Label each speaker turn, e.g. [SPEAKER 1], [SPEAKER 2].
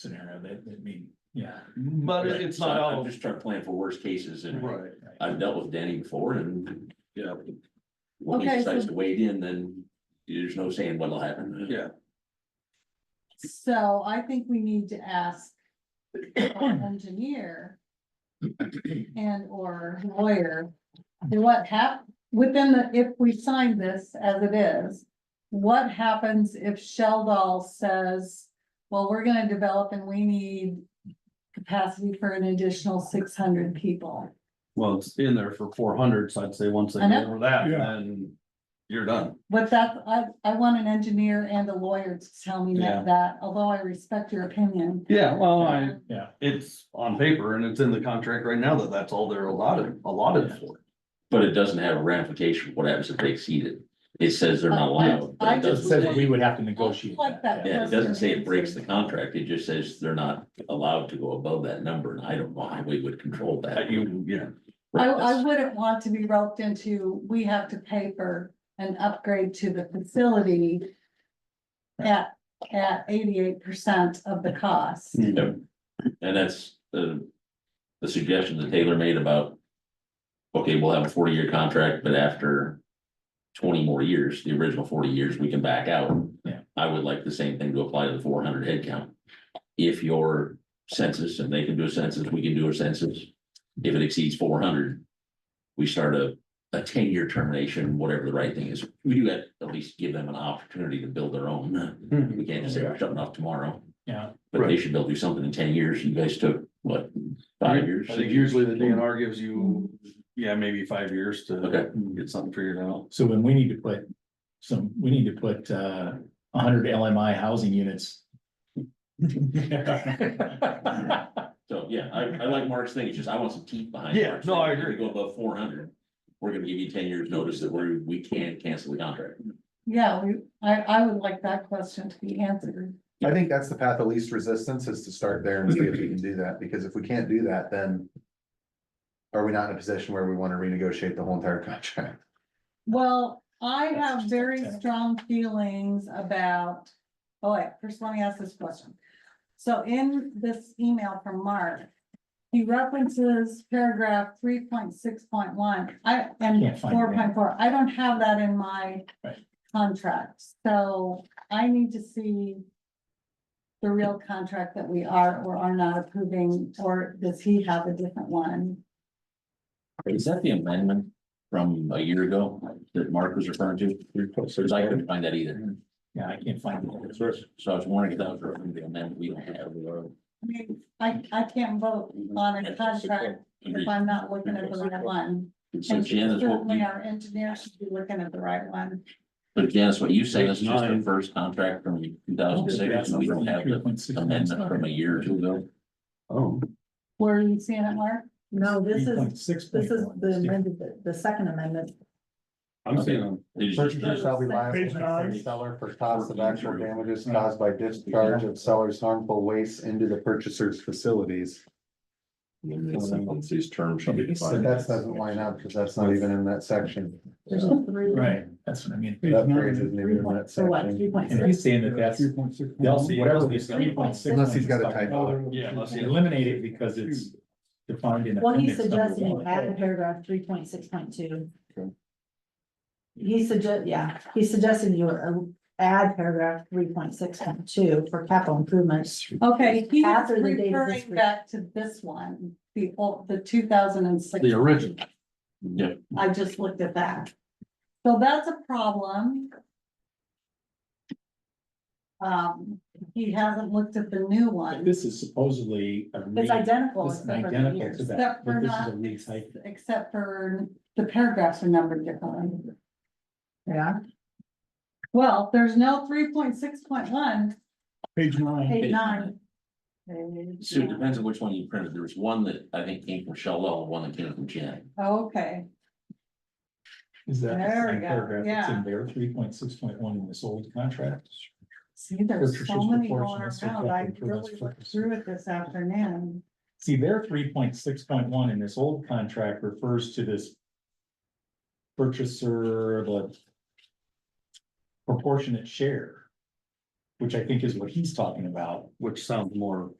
[SPEAKER 1] scenario that, that mean, yeah.
[SPEAKER 2] But it- it's not
[SPEAKER 3] So
[SPEAKER 2] all,
[SPEAKER 3] I'm just trying to plan for worst cases and
[SPEAKER 2] right,
[SPEAKER 3] I've dealt with Danny before and, you know. When he
[SPEAKER 4] Okay,
[SPEAKER 3] decides
[SPEAKER 4] so-
[SPEAKER 3] to wade in, then there's no saying what'll happen.
[SPEAKER 2] yeah,
[SPEAKER 4] So I think we need to ask our engineer and or lawyer, and what hap, within the, if we sign this as it is, what happens if Sheldon says, well, we're gonna develop and we need capacity for an additional six hundred people?
[SPEAKER 2] well, it's in there for four hundred, so I'd say once they
[SPEAKER 4] I know.
[SPEAKER 2] get over that,
[SPEAKER 1] Yeah.
[SPEAKER 2] then you're done.
[SPEAKER 4] But that, I, I want an engineer and a lawyer to tell me
[SPEAKER 2] Yeah.
[SPEAKER 4] that- that, although I respect your opinion.
[SPEAKER 2] Yeah, well, I,
[SPEAKER 1] Yeah,
[SPEAKER 2] it's on paper and it's in the contract right now that that's all they're allotted, allotted for.
[SPEAKER 3] But it doesn't have a ramification, what happens if they exceed it? It says they're not allowed.
[SPEAKER 4] Uh, I- I
[SPEAKER 3] It
[SPEAKER 1] it
[SPEAKER 3] doesn't
[SPEAKER 4] just-
[SPEAKER 1] says that
[SPEAKER 3] say-
[SPEAKER 1] we would have to negotiate.
[SPEAKER 4] Like that.
[SPEAKER 3] Yeah, it doesn't say it breaks the contract, it just says they're not allowed to go above that number, and I don't know how we would control that.
[SPEAKER 2] That you, yeah,
[SPEAKER 4] I,
[SPEAKER 3] Right,
[SPEAKER 4] I
[SPEAKER 3] that's-
[SPEAKER 4] wouldn't want to be roped into, we have to pay for an upgrade to the facility at, at eighty-eight percent of the cost.
[SPEAKER 2] Mm.
[SPEAKER 3] Yep. And that's the, the suggestion that Taylor made about. Okay, we'll have a forty year contract, but after twenty more years, the original forty years, we can back out.
[SPEAKER 1] Yeah.
[SPEAKER 3] I would like the same thing to apply to the four hundred head count. If your census, and they can do a census, we can do a census, if it exceeds four hundred. We start a, a ten year termination, whatever the right thing is, we do at, at least give them an opportunity to build their own,
[SPEAKER 2] Mhm.
[SPEAKER 3] we can't just say we're shutting off tomorrow.
[SPEAKER 1] Yeah,
[SPEAKER 3] But they
[SPEAKER 2] Right.
[SPEAKER 3] should be able to do something in ten years. You guys took, what,
[SPEAKER 2] I
[SPEAKER 3] five years?
[SPEAKER 2] think usually the DNR gives you, yeah, maybe five years to
[SPEAKER 3] Okay.
[SPEAKER 2] get something figured out.
[SPEAKER 1] so then we need to put some, we need to put uh a hundred LMI housing units.
[SPEAKER 3] So, yeah, I, I like Mark's thing. It's just I want some teeth behind.
[SPEAKER 2] Yeah,
[SPEAKER 3] Mark's
[SPEAKER 2] no,
[SPEAKER 3] thing.
[SPEAKER 2] I
[SPEAKER 3] If we
[SPEAKER 2] agree.
[SPEAKER 3] Go above four hundred. We're gonna give you ten years notice that we're, we can cancel the contract.
[SPEAKER 4] Yeah, we, I, I would like that question to be answered.
[SPEAKER 5] I think that's the path of least resistance is to start there and see if we can do that, because if we can't do that, then. Are we not in a position where we want to renegotiate the whole entire contract?
[SPEAKER 4] Well, I
[SPEAKER 1] That's
[SPEAKER 4] have
[SPEAKER 1] just
[SPEAKER 4] very
[SPEAKER 1] okay.
[SPEAKER 4] strong feelings about, oh wait, first let me ask this question. So in this email from Mark, he references paragraph three point six point one, I, and
[SPEAKER 1] Can't find it.
[SPEAKER 4] four point four, I don't have that in my
[SPEAKER 1] Right.
[SPEAKER 4] contract, so I need to see the real contract that we are or are not approving, or does he have a different one?
[SPEAKER 3] Is that the amendment from a year ago that Mark was referring to? Because I couldn't find that either.
[SPEAKER 1] Yeah, I can't find it.
[SPEAKER 3] So I was wondering if that was referring to the amendment we don't have.
[SPEAKER 4] I mean, I, I can't vote on a contract if I'm not looking at the right one.
[SPEAKER 3] So
[SPEAKER 4] And
[SPEAKER 3] Jan is what
[SPEAKER 4] certainly
[SPEAKER 3] you
[SPEAKER 4] our engineer should be looking at the right one.
[SPEAKER 3] But Janice, what you say is
[SPEAKER 2] Page
[SPEAKER 3] just the
[SPEAKER 2] nine.
[SPEAKER 3] first contract from two thousand six, and we don't have the amendment from a year or two ago.
[SPEAKER 2] Oh,
[SPEAKER 4] Where are you seeing it, Mark?
[SPEAKER 6] No, Oh, this is,
[SPEAKER 1] Six.
[SPEAKER 6] this is the amended, the- the second amendment.
[SPEAKER 2] I'm seeing,
[SPEAKER 3] They just-
[SPEAKER 5] Purchaser shall be liable
[SPEAKER 7] Page
[SPEAKER 5] to the
[SPEAKER 7] nine.
[SPEAKER 5] seller for costs of actual damages caused by discharge of seller's harmful waste into the purchaser's facilities.
[SPEAKER 8] These terms should be
[SPEAKER 5] But
[SPEAKER 8] defined.
[SPEAKER 5] that doesn't line up, because that's not even in that section.
[SPEAKER 6] There's a three.
[SPEAKER 1] Right, that's what I mean.
[SPEAKER 5] That phrase isn't even in that
[SPEAKER 6] So what,
[SPEAKER 5] section.
[SPEAKER 6] three point
[SPEAKER 1] And
[SPEAKER 6] six?
[SPEAKER 1] he's saying that that's, they'll see, whatever this three point six.
[SPEAKER 5] Unless he's got a typo.
[SPEAKER 2] yeah, let's see.
[SPEAKER 1] Eliminate it because it's defined in.
[SPEAKER 6] Well, he's
[SPEAKER 1] appendix number
[SPEAKER 6] suggesting
[SPEAKER 1] one.
[SPEAKER 6] add paragraph three point six point two.
[SPEAKER 5] Okay.
[SPEAKER 6] He suggest, yeah, he's suggesting you uh, add paragraph three point six point two for capital improvements.
[SPEAKER 4] Okay, he's
[SPEAKER 6] After the date of this
[SPEAKER 4] referring back to this one, the, old- the two thousand and six.
[SPEAKER 2] the original.
[SPEAKER 3] Yeah,
[SPEAKER 4] I just looked at that. So that's a problem. Um, he hasn't looked at the new
[SPEAKER 1] But
[SPEAKER 4] one,
[SPEAKER 1] This is supposedly a. re-
[SPEAKER 6] It's identical.
[SPEAKER 1] This is
[SPEAKER 6] except for the
[SPEAKER 1] identical
[SPEAKER 6] years.
[SPEAKER 1] to that,
[SPEAKER 4] except
[SPEAKER 1] but
[SPEAKER 4] for
[SPEAKER 1] this is
[SPEAKER 4] not,
[SPEAKER 1] a retype.
[SPEAKER 4] except for the paragraphs are numbered differently.
[SPEAKER 6] Yeah,
[SPEAKER 4] Well, there's no three point six point one,
[SPEAKER 7] Page nine.
[SPEAKER 4] page nine.
[SPEAKER 3] so it depends on which one you printed. There was one that I think came from Shellwell, and one that came from Jan.
[SPEAKER 4] Oh, Okay,
[SPEAKER 1] Is that the
[SPEAKER 4] There we
[SPEAKER 1] same
[SPEAKER 4] go,
[SPEAKER 1] paragraph that's
[SPEAKER 4] yeah.
[SPEAKER 1] in there, three point six point one in this old contract?
[SPEAKER 4] see, there's so
[SPEAKER 1] Purchases
[SPEAKER 4] many going
[SPEAKER 1] proportionate to
[SPEAKER 4] around, I
[SPEAKER 1] capital improvements
[SPEAKER 4] really looked
[SPEAKER 1] purposes.
[SPEAKER 4] through it this afternoon.
[SPEAKER 1] See, their three point six point one in this old contract refers to this. Purchaser, the. Proportionate share.
[SPEAKER 9] which I think is what he's talking about.
[SPEAKER 1] which sounds more